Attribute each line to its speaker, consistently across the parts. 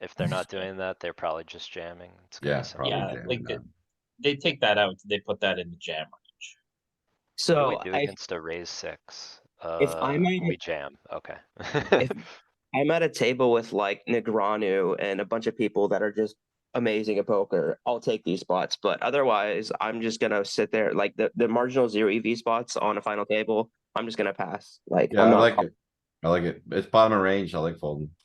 Speaker 1: if they're not doing that, they're probably just jamming. It's gonna
Speaker 2: Yeah,
Speaker 1: be simple.
Speaker 2: probably
Speaker 3: Yeah,
Speaker 2: jamming
Speaker 3: like the-
Speaker 2: them.
Speaker 3: They take that out, they put that in the jam range.
Speaker 1: What do
Speaker 4: So
Speaker 1: We do
Speaker 4: I,
Speaker 1: against a raise six.
Speaker 4: If I
Speaker 1: Uh,
Speaker 4: might-
Speaker 1: we jam, okay.
Speaker 4: I'm at a table with like Negranu and a bunch of people that are just amazing at poker. I'll take these spots, but otherwise, I'm just gonna sit there like the, the marginal zero EV spots on a final table. I'm just gonna pass. Like,
Speaker 2: Yeah,
Speaker 4: I'm
Speaker 2: I
Speaker 4: not-
Speaker 2: like it. I like it. It's bottom of range. I like folding.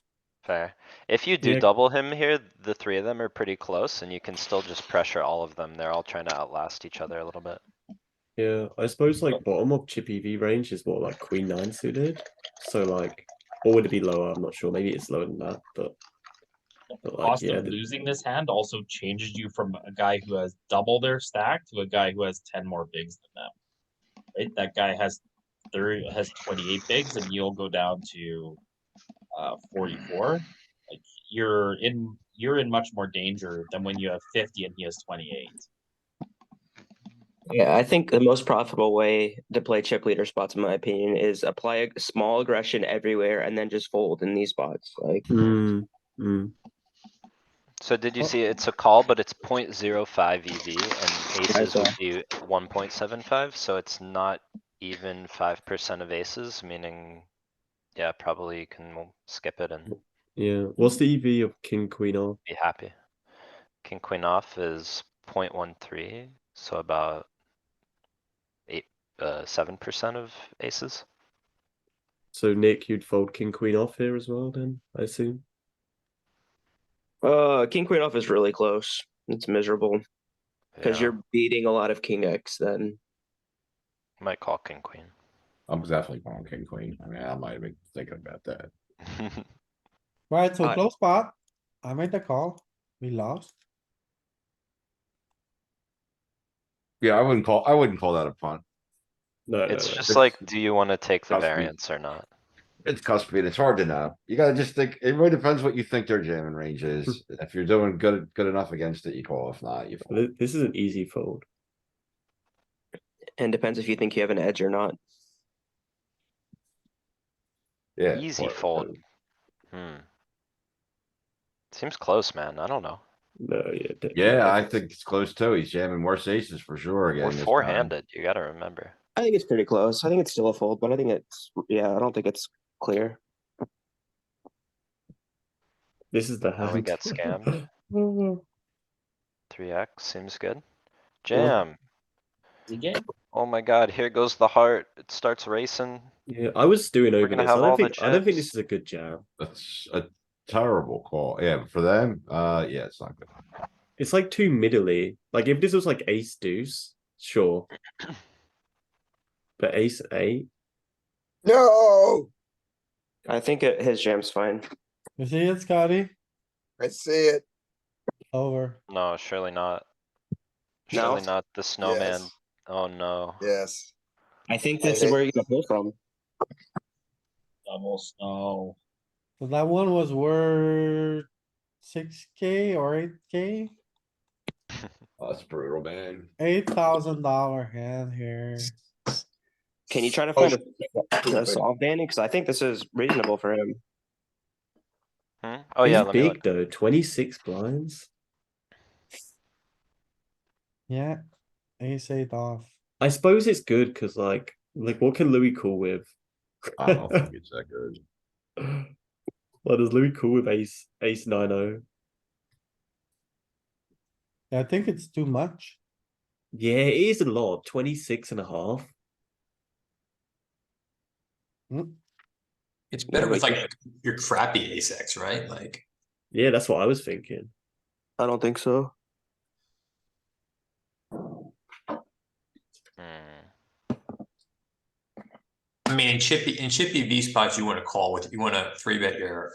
Speaker 1: Fair. If you do
Speaker 5: Yeah.
Speaker 1: double him here, the three of them are pretty close and you can still just pressure all of them. They're all trying to outlast each other a little bit.
Speaker 5: Yeah, I suppose like bottom of chippy V range is what like queen nine suited. So like, or would it be lower? I'm not sure. Maybe it's lower than that, but
Speaker 3: The
Speaker 5: But like,
Speaker 3: cost
Speaker 5: yeah,
Speaker 3: of
Speaker 5: the-
Speaker 3: losing this hand also changes you from a guy who has double their stack to a guy who has ten more bigs than them. Right, that guy has thirty, has twenty-eight bigs and you'll go down to, uh, forty-four. Like, you're in, you're in much more danger than when you have fifty and he has twenty-eight.
Speaker 4: Yeah, I think the most profitable way to play chip leader spots, in my opinion, is apply a small aggression everywhere and then just fold in these spots. Like,
Speaker 5: Mm, mm.
Speaker 1: So did you
Speaker 5: Oh.
Speaker 1: see it's a call, but it's 0.05 EV E and
Speaker 4: I
Speaker 1: aces
Speaker 4: saw.
Speaker 1: would be one point seven five, so it's not even five percent of aces, meaning. Yeah, probably you can skip it and
Speaker 5: Yeah. What's the EV of king queen off?
Speaker 1: be happy. King queen off is 0.13, so about. Eight, uh, seven percent of aces.
Speaker 5: So Nick, you'd fold king queen off here as well, then I assume.
Speaker 4: uh, king queen off is really close. It's miserable because
Speaker 1: Yeah,
Speaker 4: you're beating a lot of king x. Then
Speaker 1: Might call king queen.
Speaker 2: I'm definitely going king, queen. I mean, I might have been thinking about that.
Speaker 6: Right, so
Speaker 4: Alright.
Speaker 6: close spot. I made the call. We lost.
Speaker 2: Yeah, I wouldn't call, I wouldn't call that a punt.
Speaker 5: No,
Speaker 1: It's
Speaker 5: no, no.
Speaker 1: just like, do you wanna take the
Speaker 2: Trust me.
Speaker 1: variance or not?
Speaker 2: It's cuspy and it's hard to know. You gotta just think, it really depends what you think their jamming range is.
Speaker 1: Hmm.
Speaker 2: If you're doing good, good enough against it, you call. If not, you. fold.
Speaker 5: Th- this is an easy fold.
Speaker 4: and depends if you think you have an edge or not.
Speaker 2: Yeah.
Speaker 1: Easy
Speaker 2: or-
Speaker 1: fold. Hmm. Seems close, man. I don't know.
Speaker 5: No, yeah. de-
Speaker 2: Yeah, I think it's close too. He's jamming worse aces for sure again.
Speaker 1: We're
Speaker 2: this time.
Speaker 1: four-handed, you gotta remember.
Speaker 4: I think it's pretty close. I think it's still a fold, but I think it's yeah. I don't think it's clear.
Speaker 5: this is the hand.
Speaker 1: How we got scammed. Three X seems good. Jam.
Speaker 3: Again,
Speaker 1: Oh my god, here goes the heart. It starts racing.
Speaker 5: yeah, I was doing over
Speaker 1: gonna
Speaker 5: this.
Speaker 1: have
Speaker 5: I don't
Speaker 1: all the
Speaker 5: think I don't think this
Speaker 1: chips.
Speaker 5: is a good jam.
Speaker 2: That's a terrible call. Yeah, but for them, uh, yeah, it's not good.
Speaker 5: It's like too middly. Like if this was like ace deuce, sure. But ace eight,
Speaker 7: No,
Speaker 4: I think it, his jam's fine.
Speaker 6: You see it, Scotty?
Speaker 7: I see it.
Speaker 6: Over.
Speaker 1: No, surely not.
Speaker 4: No?
Speaker 1: Surely not the snowman.
Speaker 7: Yes.
Speaker 1: Oh no.
Speaker 7: Yes.
Speaker 4: I think
Speaker 7: this is where
Speaker 4: you can pull from.
Speaker 3: double snow.
Speaker 6: So that one was worth six K or eight K?
Speaker 2: Oh, That's brutal, man.
Speaker 6: Eight thousand dollar hand here.
Speaker 4: Can you try to
Speaker 7: Oh,
Speaker 4: find a, a solve, Danny? Because I think this is reasonable for him.
Speaker 1: Hmm? Oh yeah,
Speaker 5: he's
Speaker 1: let me
Speaker 5: big
Speaker 1: look.
Speaker 5: though. Twenty six blinds.
Speaker 6: Yeah, ace eight off.
Speaker 5: I suppose it's good because like like what can Louis call with?
Speaker 2: I don't think it's that good.
Speaker 5: What does Louis call with ace ace nine oh?
Speaker 6: I think it's too much.
Speaker 5: Yeah, it is a lot. 26 and a half.
Speaker 8: It's
Speaker 4: Yeah,
Speaker 8: better with
Speaker 4: like-
Speaker 8: like your crappy ace X, right? Like
Speaker 5: Yeah, that's what I was thinking.
Speaker 4: I don't think so.
Speaker 1: Hmm.
Speaker 8: I mean in chippy in chippy V spots you want to call with you want to three bet your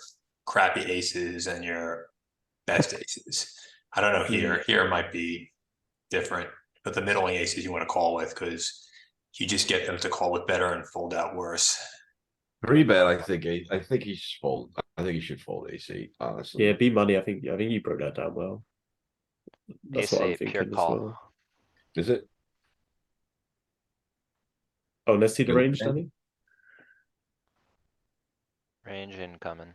Speaker 8: crappy aces and your best aces. I don't know here. Here might be different, but the middling aces you want to call with because you just get them to call with better and fold out worse.
Speaker 2: Three bet, I think, a- I think he should fold. I think he should fold AC, honestly.
Speaker 5: Yeah, B money. I think I think you broke that down well. That's
Speaker 1: Ace
Speaker 5: what I'm
Speaker 1: eight, pure
Speaker 5: thinking as
Speaker 1: call.
Speaker 5: well.
Speaker 2: Is it?
Speaker 5: Oh, let's see the
Speaker 2: Good
Speaker 5: range,
Speaker 2: thing.
Speaker 5: Danny.
Speaker 1: Range incoming.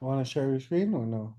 Speaker 6: Wanna share your screen or no?